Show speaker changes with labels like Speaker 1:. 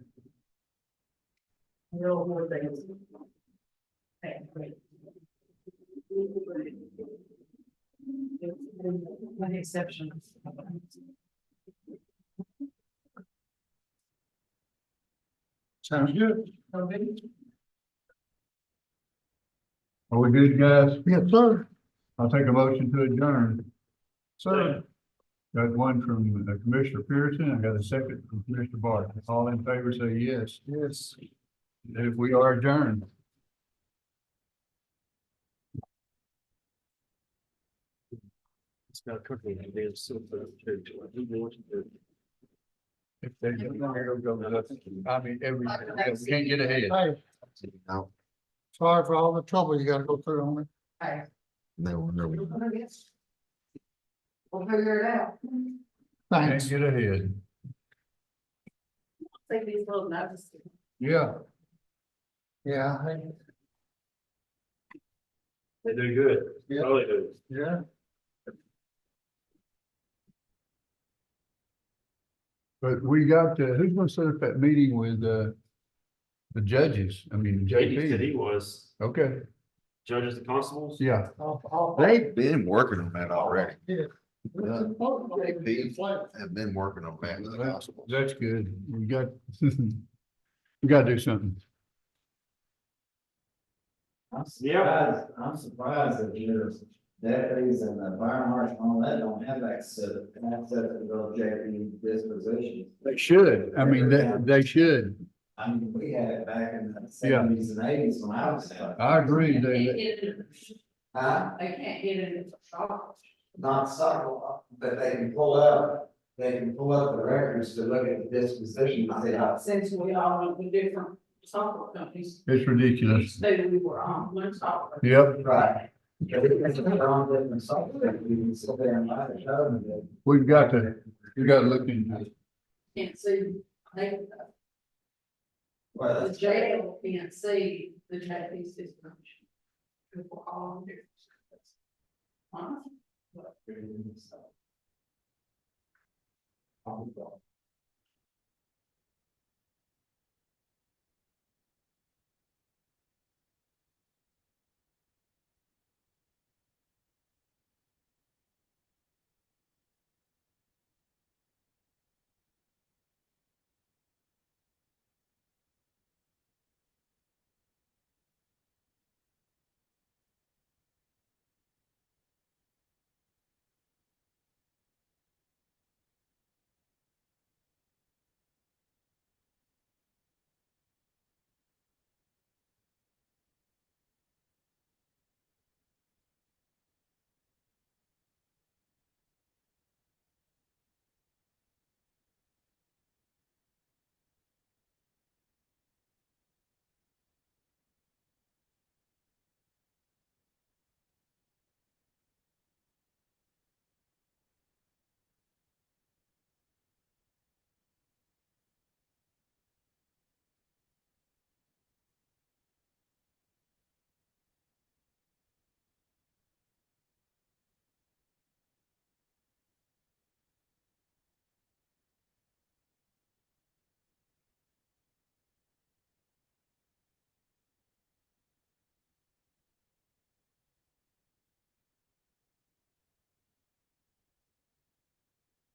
Speaker 1: real more things. Okay, great. One exception.
Speaker 2: Sounds good.
Speaker 1: Okay.
Speaker 2: Are we good, guys? Yes, sir. I'll take a motion to adjourn. Sir. Got one from uh, Commissioner Pearson, I got a second from Commissioner Barton. All in favor, say yes. Yes. If we are adjourned.
Speaker 3: It's not cooking, and they're super.
Speaker 2: If they don't, it'll go to us. I mean, every, we can't get ahead.
Speaker 4: Hey,
Speaker 3: Now,
Speaker 4: sorry for all the trouble you gotta go through on it.
Speaker 1: Hi.
Speaker 3: they will know.
Speaker 1: We'll figure it out.
Speaker 4: Thanks.
Speaker 2: Can't get ahead.
Speaker 1: Take these little notes.
Speaker 2: Yeah,
Speaker 4: Yeah, I-
Speaker 3: They do good.
Speaker 4: Yeah.
Speaker 3: Probably do.
Speaker 4: yeah.
Speaker 2: but we got, uh, who's gonna set up that meeting with, uh, the judges? I mean,
Speaker 3: JD said
Speaker 2: JP.
Speaker 3: he was
Speaker 2: Okay,
Speaker 3: judges and constables.
Speaker 2: yeah.
Speaker 4: I'll- I'll-
Speaker 5: They've been working on that already.
Speaker 4: Yeah.
Speaker 5: Yeah.
Speaker 4: It's like-
Speaker 5: Have been working on that with the gospel.
Speaker 2: That's good. We got, we gotta do something.
Speaker 6: I'm
Speaker 3: Yeah.
Speaker 6: surprised, I'm surprised that there's deputies and the fire marshal and all that don't have access, access to those JP dispositions.
Speaker 2: They should. I mean, they, they should.
Speaker 6: I mean, we had it back in the seventies and eighties when I was there.
Speaker 2: I agree.
Speaker 1: I can't
Speaker 2: They,
Speaker 1: get it,
Speaker 6: Huh?
Speaker 1: I can't get it in the shop.
Speaker 6: not subtle, but they can pull up, they can pull up the records to look at the disposition, I say, I
Speaker 1: Since we all went with different software companies,
Speaker 2: it's ridiculous.
Speaker 1: they we were on one software.
Speaker 2: Yep,
Speaker 6: right. But it's a wrong different software, you can sit there and lie to show them that.
Speaker 2: we've got to, we gotta look into it.
Speaker 1: Can't see, they,
Speaker 6: Well,
Speaker 1: the
Speaker 6: that's-
Speaker 1: jail can't see the JP system. People all different. Huh?
Speaker 6: I'll be gone.